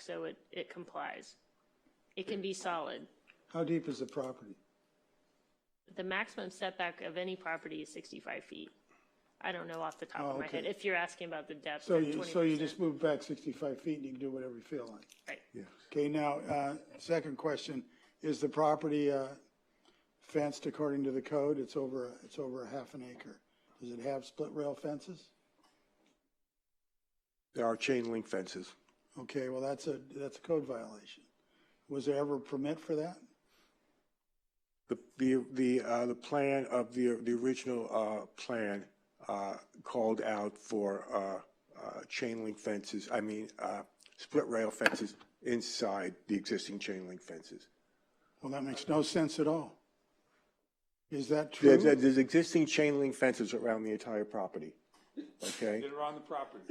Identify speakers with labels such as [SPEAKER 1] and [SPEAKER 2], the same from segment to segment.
[SPEAKER 1] so it, it complies. It can be solid.
[SPEAKER 2] How deep is the property?
[SPEAKER 1] The maximum setback of any property is 65 feet. I don't know off the top
[SPEAKER 2] Oh,
[SPEAKER 1] of my
[SPEAKER 2] okay.
[SPEAKER 1] head, if you're asking about the depth
[SPEAKER 2] So
[SPEAKER 1] of
[SPEAKER 2] you, so you
[SPEAKER 1] 20%.
[SPEAKER 2] just move back 65 feet and you can do whatever you feel like.
[SPEAKER 1] Right.
[SPEAKER 2] Okay, now, uh, second question, is the property uh, fenced according to the code? It's over, it's over a half an acre. Does it have split rail fences?
[SPEAKER 3] There are chain link fences.
[SPEAKER 2] Okay, well, that's a, that's a code violation. Was there ever a permit for that?
[SPEAKER 3] The, the, the, uh, the plan of the, the original, uh, plan, uh, called out for, uh, uh, chain link fences, I mean, uh, split rail fences inside the existing chain link fences.
[SPEAKER 2] Well, that makes no sense at all. Is that
[SPEAKER 3] There's,
[SPEAKER 2] true?
[SPEAKER 3] there's existing chain link fences around the entire property, okay,
[SPEAKER 4] that are on the property.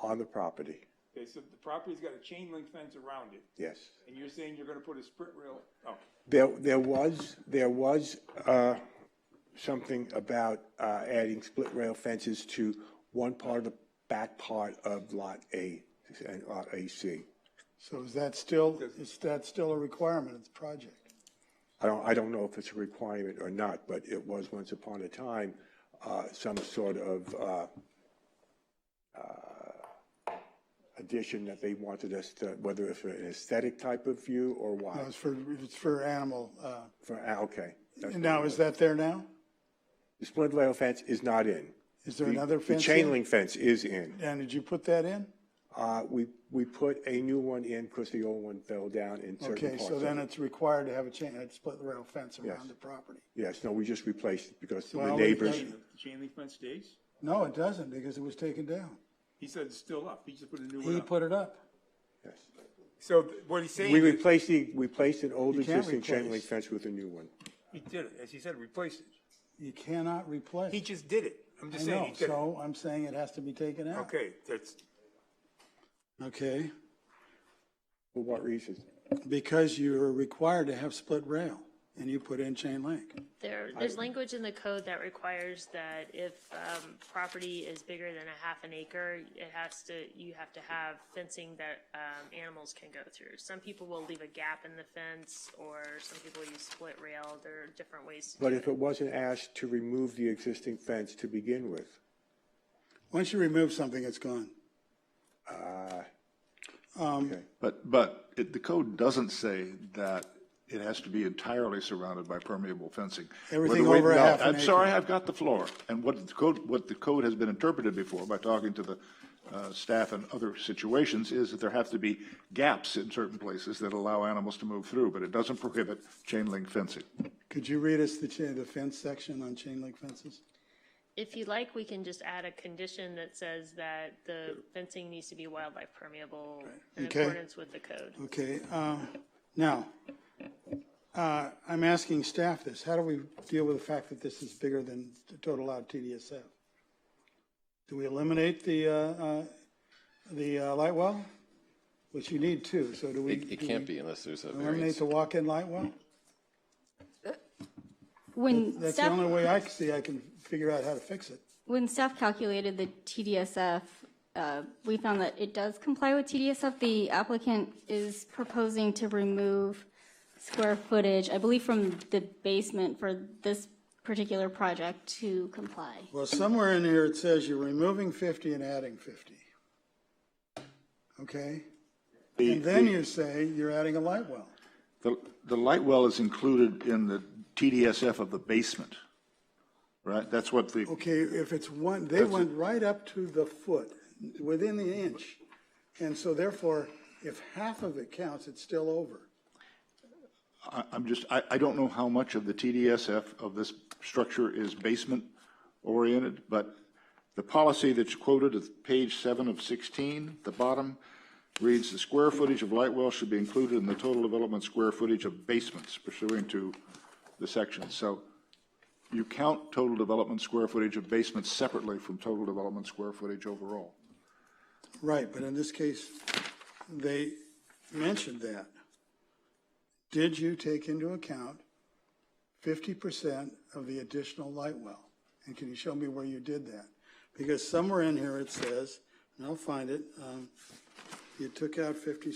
[SPEAKER 3] on the property,
[SPEAKER 4] Okay, so the property's got a chain link fence around it,
[SPEAKER 3] yes.
[SPEAKER 4] and you're saying you're gonna put a split rail, oh,
[SPEAKER 3] There, there was, there was, uh, something about, uh, adding split rail fences to one part of the back part of Lot A and Lot AC.
[SPEAKER 2] So is that still, is that still a requirement of the project?
[SPEAKER 3] I don't, I don't know if it's a requirement or not, but it was once upon a time, uh, some sort of, uh, uh, addition that they wanted us to, whether it's an aesthetic type of view or
[SPEAKER 2] No,
[SPEAKER 3] why.
[SPEAKER 2] Uh, it's for, it's for animal, uh,
[SPEAKER 3] For, ah, okay. That's-
[SPEAKER 2] and now is that there now?
[SPEAKER 3] The split rail fence is not in.
[SPEAKER 2] Is there another
[SPEAKER 3] The
[SPEAKER 2] fence?
[SPEAKER 3] chain
[SPEAKER 2] in?
[SPEAKER 3] link fence is in.
[SPEAKER 2] And did you put that in?
[SPEAKER 3] Uh, we, we put a new one in because the old one fell down in certain
[SPEAKER 2] Okay,
[SPEAKER 3] parts
[SPEAKER 2] so
[SPEAKER 3] of
[SPEAKER 2] then
[SPEAKER 3] it.
[SPEAKER 2] it's required to have a chain, a split rail fence
[SPEAKER 3] Yes.
[SPEAKER 2] around the property.
[SPEAKER 3] Yes, no, we just replaced it because the
[SPEAKER 2] Well, we-
[SPEAKER 3] neighbors,
[SPEAKER 4] the chain link fence stays?
[SPEAKER 2] No, it doesn't, because it was taken down.
[SPEAKER 4] He said it's still up, he just put a new
[SPEAKER 2] He
[SPEAKER 4] one up.
[SPEAKER 2] put it up.
[SPEAKER 3] yes.
[SPEAKER 4] So th- what he's saying
[SPEAKER 3] We
[SPEAKER 4] is,
[SPEAKER 3] replaced the, we replaced an old
[SPEAKER 2] You can't
[SPEAKER 3] existing chain
[SPEAKER 2] replace.
[SPEAKER 3] link fence with a new one.
[SPEAKER 4] he did it, as he said, replace it.
[SPEAKER 2] You cannot replace.
[SPEAKER 4] He just did it, I'm
[SPEAKER 2] I
[SPEAKER 4] just saying,
[SPEAKER 2] know,
[SPEAKER 4] he did it.
[SPEAKER 2] so I'm saying it has to be taken out.
[SPEAKER 4] Okay, that's,
[SPEAKER 2] Okay,
[SPEAKER 3] For what reason?
[SPEAKER 2] because you're required to have split rail, and you put in chain link.
[SPEAKER 1] There, there's language in the code that requires that if um, property is bigger than a half an acre, it has to, you have to have fencing that um, animals can go through. Some people will leave a gap in the fence, or some people use split rail, there are different ways. to
[SPEAKER 3] But
[SPEAKER 1] do
[SPEAKER 3] if it wasn't asked to remove the existing fence to begin with,
[SPEAKER 2] Once you remove something, it's gone. Um,
[SPEAKER 5] But, but it, the code doesn't say that it has to be entirely surrounded by permeable fencing.
[SPEAKER 2] Everything
[SPEAKER 5] Whether we-
[SPEAKER 2] over a
[SPEAKER 5] no,
[SPEAKER 2] half an
[SPEAKER 5] I'm
[SPEAKER 2] acre.
[SPEAKER 5] sorry, I've got the floor. And what the code, what the code has been interpreted before by talking to the, uh, staff in other situations is that there have to be gaps in certain places that allow animals to move through, but it doesn't prohibit chain link fencing.
[SPEAKER 2] Could you read us the chain, the fence section on chain link fences?
[SPEAKER 1] If you like, we can just add a condition that says that the fencing needs to be wildlife permeable in
[SPEAKER 2] Okay.
[SPEAKER 1] accordance with the code.
[SPEAKER 2] Okay, um, now, uh, I'm asking staff this, how do we deal with the fact that this is bigger than the total allowed TDSF? Do we eliminate the, uh, uh, the uh, light well? Which you need two, so do we?
[SPEAKER 6] It, it
[SPEAKER 2] do
[SPEAKER 6] can't
[SPEAKER 2] we
[SPEAKER 6] be unless there's a
[SPEAKER 2] Eliminate
[SPEAKER 6] variance.
[SPEAKER 2] the walk-in light well?
[SPEAKER 7] When
[SPEAKER 2] That's the only
[SPEAKER 7] staff,
[SPEAKER 2] way I can see I can figure out how to fix it.
[SPEAKER 7] when staff calculated the TDSF, uh, we found that it does comply with TDSF. The applicant is proposing to remove square footage, I believe, from the basement for this particular project to comply.
[SPEAKER 2] Well, somewhere in here it says you're removing 50 and adding 50. Okay? And then you say you're adding a light well.
[SPEAKER 5] The, the light well is included in the TDSF of the basement, right? That's what the,
[SPEAKER 2] Okay, if it's one, they went right up to the foot, within the inch. And so therefore, if half of it counts, it's still over.
[SPEAKER 5] I- I'm just, I, I don't know how much of the TDSF of this structure is basement-oriented, but the policy that's quoted at page seven of 16, the bottom, reads, "The square footage of light well should be included in the total development square footage of basements pursuant to the section." So you count total development square footage of basements separately from total development square footage overall.
[SPEAKER 2] Right, but in this case, they mentioned that. Did you take into account fifty percent of the additional light well? And can you show me where you did that? Because somewhere in here it says, and I'll find it, um, you took out fifty